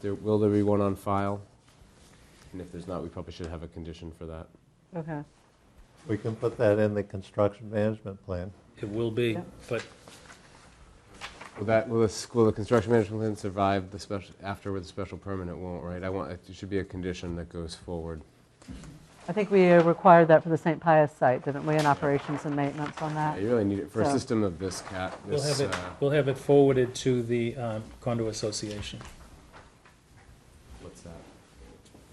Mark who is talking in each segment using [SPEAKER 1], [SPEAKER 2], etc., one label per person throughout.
[SPEAKER 1] there, will there be one on file? And if there's not, we probably should have a condition for that.
[SPEAKER 2] Okay,
[SPEAKER 3] We can put that in the construction management plan.
[SPEAKER 4] It will be,
[SPEAKER 2] Yeah.
[SPEAKER 4] but
[SPEAKER 1] Will that, will the, will the construction management plan survive the special, after with the special permit, it won't, right? I want, it should be a condition that goes forward.
[SPEAKER 2] I think we uh, required that for the St. Pius site, didn't we, in operations and maintenance on
[SPEAKER 1] Yeah,
[SPEAKER 2] that?
[SPEAKER 1] You really need it for a
[SPEAKER 2] Uh, So-
[SPEAKER 1] system of this cat,
[SPEAKER 4] we'll
[SPEAKER 1] this,
[SPEAKER 4] have it,
[SPEAKER 1] uh,
[SPEAKER 4] we'll have it forwarded to the um, condo association.
[SPEAKER 1] what's that?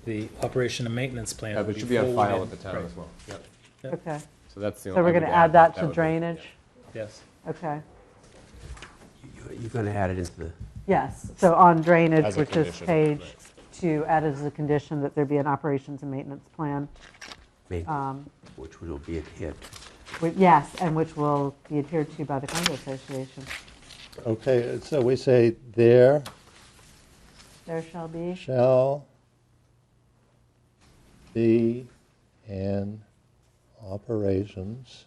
[SPEAKER 4] The operation and maintenance plan.
[SPEAKER 1] Yeah, but
[SPEAKER 4] will
[SPEAKER 1] it should be on file at
[SPEAKER 4] forwarded-
[SPEAKER 1] the town
[SPEAKER 4] right,
[SPEAKER 1] as well. Yep.
[SPEAKER 4] yeah.
[SPEAKER 2] Okay,
[SPEAKER 1] So that's the
[SPEAKER 2] so
[SPEAKER 1] only.
[SPEAKER 2] we're
[SPEAKER 1] I would
[SPEAKER 2] going to add that to
[SPEAKER 1] would be- yeah.
[SPEAKER 2] drainage?
[SPEAKER 4] Yes.
[SPEAKER 2] Okay,
[SPEAKER 5] You're going to add it into the,
[SPEAKER 2] yes, so on drainage,
[SPEAKER 1] As a
[SPEAKER 2] which is
[SPEAKER 1] condition,
[SPEAKER 2] page
[SPEAKER 1] right.
[SPEAKER 2] two, add as a condition that there be an operations and maintenance plan,
[SPEAKER 5] main-
[SPEAKER 2] um,
[SPEAKER 5] which will be adhered to.
[SPEAKER 2] wi- yes, and which will be adhered to by the condo association.
[SPEAKER 3] Okay, so we say there
[SPEAKER 2] There shall be,
[SPEAKER 3] shall be an operations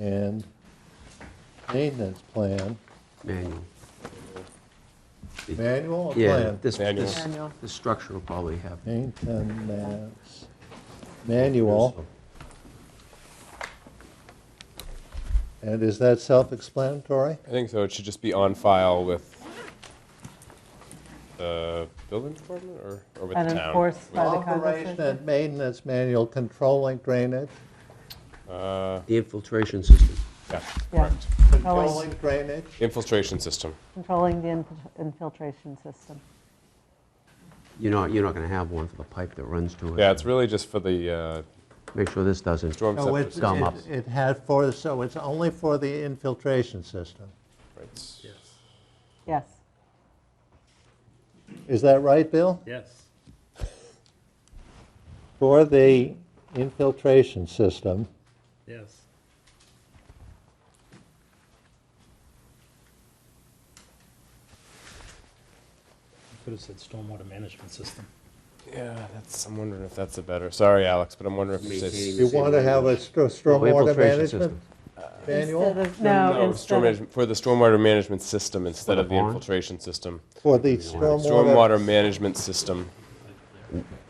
[SPEAKER 3] and maintenance plan,
[SPEAKER 5] manual.
[SPEAKER 3] manual or
[SPEAKER 5] Yeah,
[SPEAKER 3] plan?
[SPEAKER 5] this,
[SPEAKER 1] Manual.
[SPEAKER 5] this,
[SPEAKER 2] Manual.
[SPEAKER 5] this structure will probably have.
[SPEAKER 3] Maintenance manual, and is that self-explanatory?
[SPEAKER 1] I think so. It should just be on file with the building department or, or with
[SPEAKER 2] and
[SPEAKER 1] the town.
[SPEAKER 2] enforced by the condo
[SPEAKER 3] Operation
[SPEAKER 2] association.
[SPEAKER 3] and maintenance manual controlling drainage,
[SPEAKER 1] Uh,
[SPEAKER 5] The infiltration system.
[SPEAKER 1] yeah,
[SPEAKER 2] Yeah.
[SPEAKER 1] correct.
[SPEAKER 2] Oh,
[SPEAKER 3] controlling drainage.
[SPEAKER 1] Infiltration system.
[SPEAKER 2] Controlling the inf- infiltration system.
[SPEAKER 5] You're not, you're not going to have one for the pipe that runs to it.
[SPEAKER 1] Yeah, it's really just for the uh,
[SPEAKER 5] Make sure this doesn't. Oh,
[SPEAKER 1] storm
[SPEAKER 3] No,
[SPEAKER 1] scepter
[SPEAKER 3] it's,
[SPEAKER 1] system.
[SPEAKER 5] Scum
[SPEAKER 3] it
[SPEAKER 5] up.
[SPEAKER 3] it had for, so it's only for the infiltration system.
[SPEAKER 1] Right.
[SPEAKER 2] Yes,
[SPEAKER 3] Is that right, Bill?
[SPEAKER 4] Yes.
[SPEAKER 3] For the infiltration system,
[SPEAKER 4] Yes. Could have said stormwater management system.
[SPEAKER 1] Yeah, that's, I'm wondering if that's a better, sorry, Alex, but I'm wondering if it's.
[SPEAKER 5] Maintaining
[SPEAKER 3] you want to have a stro-
[SPEAKER 5] Oh,
[SPEAKER 3] stormwater
[SPEAKER 5] infiltration
[SPEAKER 3] management
[SPEAKER 5] system.
[SPEAKER 2] instead
[SPEAKER 3] manual?
[SPEAKER 2] of, no,
[SPEAKER 1] storm
[SPEAKER 2] instead of,
[SPEAKER 1] management- For the stormwater management system instead
[SPEAKER 5] the
[SPEAKER 1] of the
[SPEAKER 5] barn?
[SPEAKER 1] infiltration system.
[SPEAKER 3] For the
[SPEAKER 1] Stormwater
[SPEAKER 3] stormwater,
[SPEAKER 1] management system.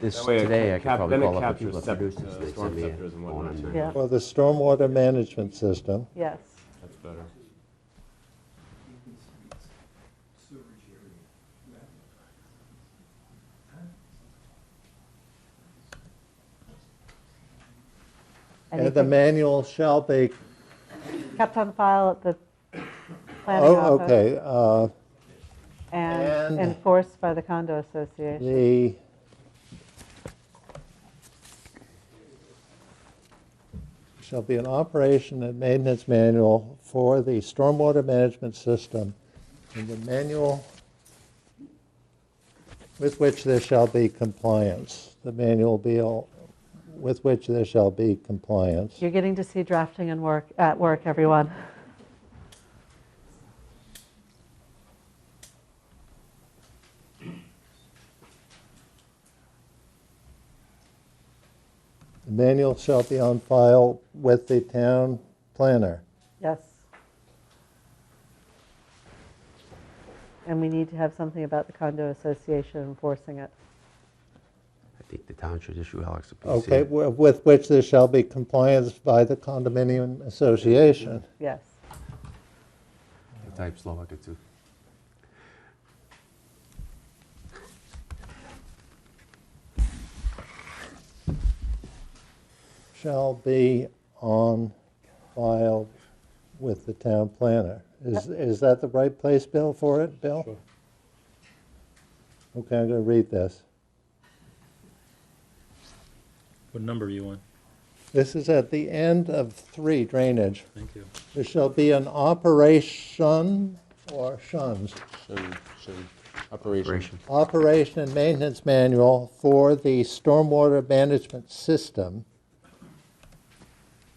[SPEAKER 5] This
[SPEAKER 1] That way it
[SPEAKER 5] today, I could
[SPEAKER 1] cap-
[SPEAKER 5] probably
[SPEAKER 1] then it
[SPEAKER 5] call up the
[SPEAKER 1] captures
[SPEAKER 5] people
[SPEAKER 1] sep-
[SPEAKER 5] that produce this.
[SPEAKER 1] uh,
[SPEAKER 5] They
[SPEAKER 1] storm
[SPEAKER 5] send me a
[SPEAKER 1] scepters and
[SPEAKER 5] phone
[SPEAKER 1] whatnot,
[SPEAKER 5] on
[SPEAKER 1] too.
[SPEAKER 5] that.
[SPEAKER 2] yeah,
[SPEAKER 3] for the stormwater management system,
[SPEAKER 2] yes,
[SPEAKER 1] That's better.
[SPEAKER 3] and the
[SPEAKER 2] anything
[SPEAKER 3] manual shall be,
[SPEAKER 2] kept on file at the planning
[SPEAKER 3] oh,
[SPEAKER 2] office
[SPEAKER 3] okay, uh,
[SPEAKER 2] and
[SPEAKER 3] And-
[SPEAKER 2] enforced by the condo association.
[SPEAKER 3] the shall be an operation and maintenance manual for the stormwater management system, and the manual with which there shall be compliance. The manual be all, with which there shall be compliance.
[SPEAKER 2] You're getting to see drafting and work, at work, everyone.
[SPEAKER 3] The manual shall be on file with the town planner.
[SPEAKER 2] Yes. And we need to have something about the condo association enforcing it.
[SPEAKER 5] I think the town should issue Alex a PC.
[SPEAKER 3] Okay, wi- with which there shall be compliance by the condominium association.
[SPEAKER 2] Yes.
[SPEAKER 5] I Type slow, I could do.
[SPEAKER 3] shall be on file with the town planner. Is, is that the right place, Bill, for it, Bill?
[SPEAKER 4] Sure.
[SPEAKER 3] Okay, I'm going to read this.
[SPEAKER 4] What number are you on?
[SPEAKER 3] This is at the end of three drainage.
[SPEAKER 4] Thank you.
[SPEAKER 3] There shall be an operation or shuns,
[SPEAKER 1] Shouldn't- shouldn't- Operation.
[SPEAKER 5] Operation.
[SPEAKER 3] operation and maintenance manual for the stormwater management system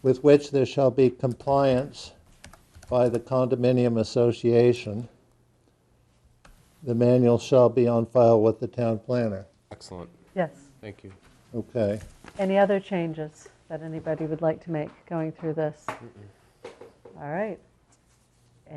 [SPEAKER 3] with which there shall be compliance by the condominium association. The manual shall be on file with the town planner.
[SPEAKER 1] Excellent,
[SPEAKER 2] Yes.
[SPEAKER 1] thank you.
[SPEAKER 3] Okay.
[SPEAKER 2] Any other changes that anybody would like to make going through this? All right.